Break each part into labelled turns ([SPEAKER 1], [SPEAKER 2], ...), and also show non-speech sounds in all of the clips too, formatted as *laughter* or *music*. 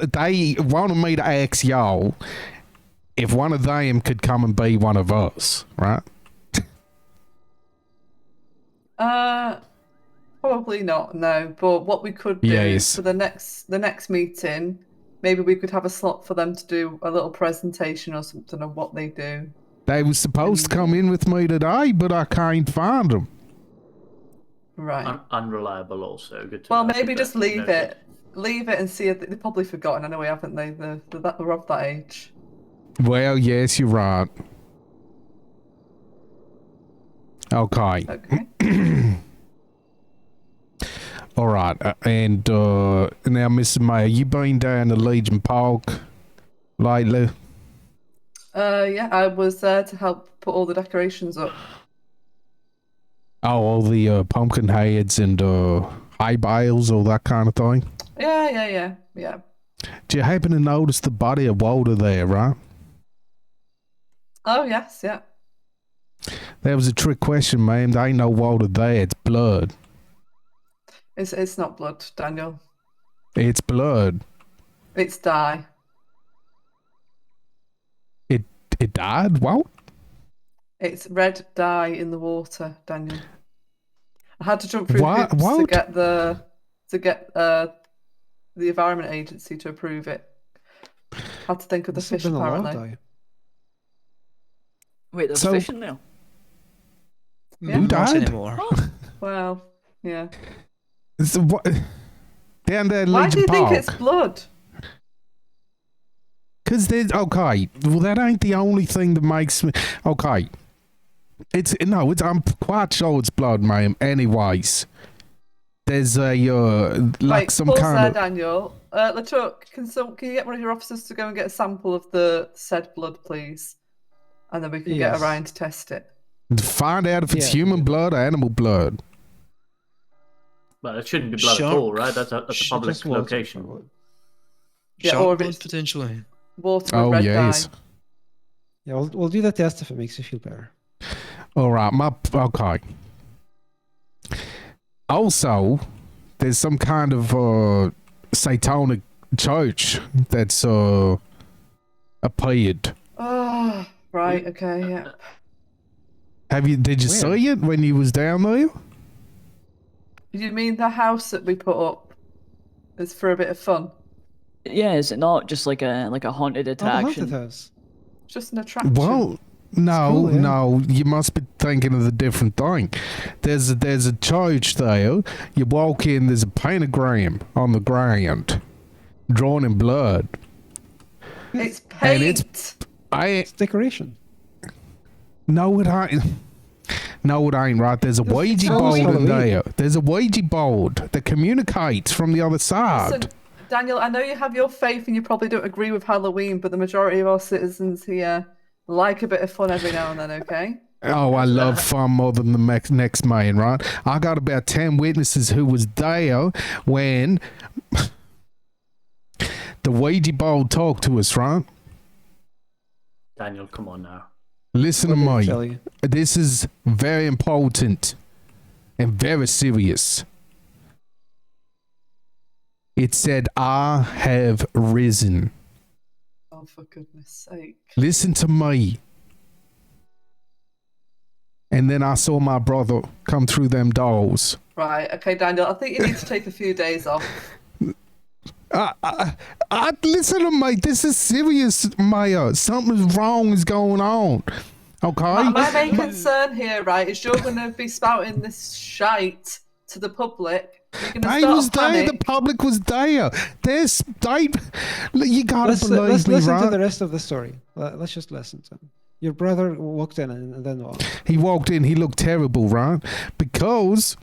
[SPEAKER 1] they wanted me to ask y'all if one of them could come and be one of us, right?
[SPEAKER 2] Uh, probably not. No, but what we could do
[SPEAKER 1] Yes.
[SPEAKER 2] for the next the next meeting, maybe we could have a slot for them to do a little presentation or something of what they do.
[SPEAKER 1] They was supposed to come in with me today, but I can't find them.
[SPEAKER 2] Right.
[SPEAKER 3] Un- unreliable, also. Good to
[SPEAKER 2] well,
[SPEAKER 3] know.
[SPEAKER 2] maybe
[SPEAKER 3] But
[SPEAKER 2] just leave
[SPEAKER 3] noted.
[SPEAKER 2] it, leave it, and see. If they- they've probably forgotten anyway, haven't they? They're, they're, that, they're of that age.
[SPEAKER 1] Well, yes, you're right. Okay.
[SPEAKER 2] Okay.
[SPEAKER 1] All right, uh, and uh, now, Mr. Mayor, you been down to Legion Park lately?
[SPEAKER 2] uh, yeah, I was there to help put all the decorations up.
[SPEAKER 1] Oh, all the uh, pumpkin heads and uh, hay bales, all that kind of thing.
[SPEAKER 2] Yeah, yeah, yeah, yeah.
[SPEAKER 1] Do you happen to notice the body of Walter there, right?
[SPEAKER 2] Oh yes, yeah.
[SPEAKER 1] That was a trick question, ma'am. There ain't no Walter there. It's blood.
[SPEAKER 2] It's it's not blood, Daniel.
[SPEAKER 1] It's blood.
[SPEAKER 2] It's dye.
[SPEAKER 1] It it died. What?
[SPEAKER 2] It's red dye in the water, Daniel. I had to jump through
[SPEAKER 1] Wha-
[SPEAKER 2] hoops to
[SPEAKER 1] what?
[SPEAKER 2] get the to get uh the environment agency to approve it. Had to think of the
[SPEAKER 4] This has
[SPEAKER 2] fish
[SPEAKER 4] been a long
[SPEAKER 2] apparently.
[SPEAKER 4] day.
[SPEAKER 3] Wait, there's
[SPEAKER 1] So-
[SPEAKER 3] a fish in there.
[SPEAKER 2] Yeah.
[SPEAKER 1] Who
[SPEAKER 4] Not
[SPEAKER 1] died?
[SPEAKER 4] anymore.
[SPEAKER 2] Well, yeah.
[SPEAKER 1] It's, what? Down there, at
[SPEAKER 2] Why do
[SPEAKER 1] Legion
[SPEAKER 2] you
[SPEAKER 1] Park.
[SPEAKER 2] think it's blood?
[SPEAKER 1] Cause there's okay. Well, that ain't the only thing that makes me okay. It's no, it's I'm quite sure it's blood, ma'am. Anyways, there's a uh, like
[SPEAKER 2] Right,
[SPEAKER 1] some
[SPEAKER 2] pause
[SPEAKER 1] kind
[SPEAKER 2] there,
[SPEAKER 1] of
[SPEAKER 2] Daniel. Uh, Lachuk, can some can you get one of your officers to go and get a sample of the said blood, please? And then we can
[SPEAKER 4] Yes.
[SPEAKER 2] get Orion to test it.
[SPEAKER 1] find out if it's
[SPEAKER 4] Yeah.
[SPEAKER 1] human blood or animal blood.
[SPEAKER 3] Well, it shouldn't be blood
[SPEAKER 4] Shark-
[SPEAKER 3] at all, right? That's a, that's a
[SPEAKER 4] Sh-
[SPEAKER 3] public
[SPEAKER 4] just water,
[SPEAKER 3] location.
[SPEAKER 4] probably.
[SPEAKER 2] Yeah,
[SPEAKER 4] Shark
[SPEAKER 2] or if
[SPEAKER 4] blood,
[SPEAKER 2] it's-
[SPEAKER 4] potentially.
[SPEAKER 2] Water with
[SPEAKER 1] Oh
[SPEAKER 2] red
[SPEAKER 1] yes.
[SPEAKER 2] dye.
[SPEAKER 4] Yeah, we'll, we'll do the test if it makes you feel better.
[SPEAKER 1] All right, my okay. Also, there's some kind of uh, satanic church that's uh, appeared.
[SPEAKER 2] Oh, right, okay, yeah.
[SPEAKER 1] Have you? Did you
[SPEAKER 4] Where?
[SPEAKER 1] see it when you was down there?
[SPEAKER 2] You mean the house that we put up is for a bit of fun?
[SPEAKER 5] Yeah, is it not just like a like a haunted
[SPEAKER 4] Oh, the
[SPEAKER 5] attraction?
[SPEAKER 4] haunted house.
[SPEAKER 2] It's just an attraction.
[SPEAKER 1] Well, no,
[SPEAKER 4] cool, yeah.
[SPEAKER 1] no, you must be thinking of the different thing. There's a, there's a church there. You walk in, there's a pentagram on the ground, drawn in blood.
[SPEAKER 2] it's paint.
[SPEAKER 1] and it's- I
[SPEAKER 4] It's decoration.
[SPEAKER 1] no, it ain't. No, it ain't right. There's a Ouija
[SPEAKER 4] it's
[SPEAKER 1] board in
[SPEAKER 4] Halloween.
[SPEAKER 1] there. There's a Ouija board that communicates from the other
[SPEAKER 2] Listen,
[SPEAKER 1] side.
[SPEAKER 2] Daniel, I know you have your faith and you probably don't agree with Halloween, but the majority of our citizens here like a bit of fun every now and then, okay?
[SPEAKER 1] Oh, I love fun more than the next, next man, right? I got about 10 witnesses who was there when the Ouija board talked to us, right?
[SPEAKER 3] Daniel, come on now.
[SPEAKER 1] Listen to
[SPEAKER 4] What did it tell
[SPEAKER 1] me.
[SPEAKER 4] you?
[SPEAKER 1] This is very important and very serious. It said, I have risen.
[SPEAKER 2] Oh, for goodness sake.
[SPEAKER 1] Listen to me. And then I saw my brother come through them doors.
[SPEAKER 2] Right, okay, Daniel, I think you need to take a few
[SPEAKER 1] *laughs*
[SPEAKER 2] days off.
[SPEAKER 1] I, I, I listen to me. This is serious, Maya. Something wrong is going on.
[SPEAKER 2] My,
[SPEAKER 1] Okay.
[SPEAKER 2] my main concern here, right, is you're going to be spouting this shite to the public. You're going to
[SPEAKER 1] They
[SPEAKER 2] start
[SPEAKER 1] was
[SPEAKER 2] a panic.
[SPEAKER 1] there. The public was there. This, they, you gotta
[SPEAKER 4] Let's,
[SPEAKER 1] believe
[SPEAKER 4] let's
[SPEAKER 1] me,
[SPEAKER 4] listen
[SPEAKER 1] right?
[SPEAKER 4] to the rest of the story. Let- Let's just listen to him. Your brother walked in and and then what?
[SPEAKER 1] He walked in. He looked terrible, right? Because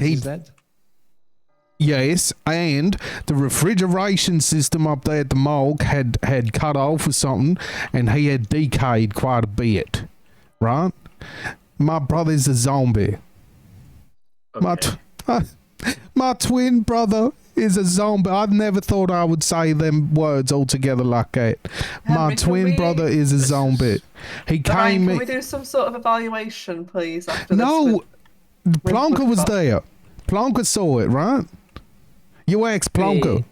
[SPEAKER 1] he
[SPEAKER 4] He's dead.
[SPEAKER 1] Yes, and the refrigeration system up there at the morgue had had cut off or something, and he had decayed quite a bit, right? My brother's a zombie. My
[SPEAKER 3] Okay.
[SPEAKER 1] tw- *laughs* my twin brother is a zombie. I've never thought I would say them words altogether like that. my
[SPEAKER 2] Henry, can
[SPEAKER 1] twin
[SPEAKER 2] we-
[SPEAKER 1] brother is a zombie. He
[SPEAKER 2] Brian,
[SPEAKER 1] came
[SPEAKER 2] can
[SPEAKER 1] in.
[SPEAKER 2] we do some sort of evaluation, please? After this
[SPEAKER 1] No,
[SPEAKER 2] with-
[SPEAKER 1] Plonker was
[SPEAKER 2] Woodcock.
[SPEAKER 1] there. Plonker saw it, right? You asked Plonker.
[SPEAKER 5] Wait.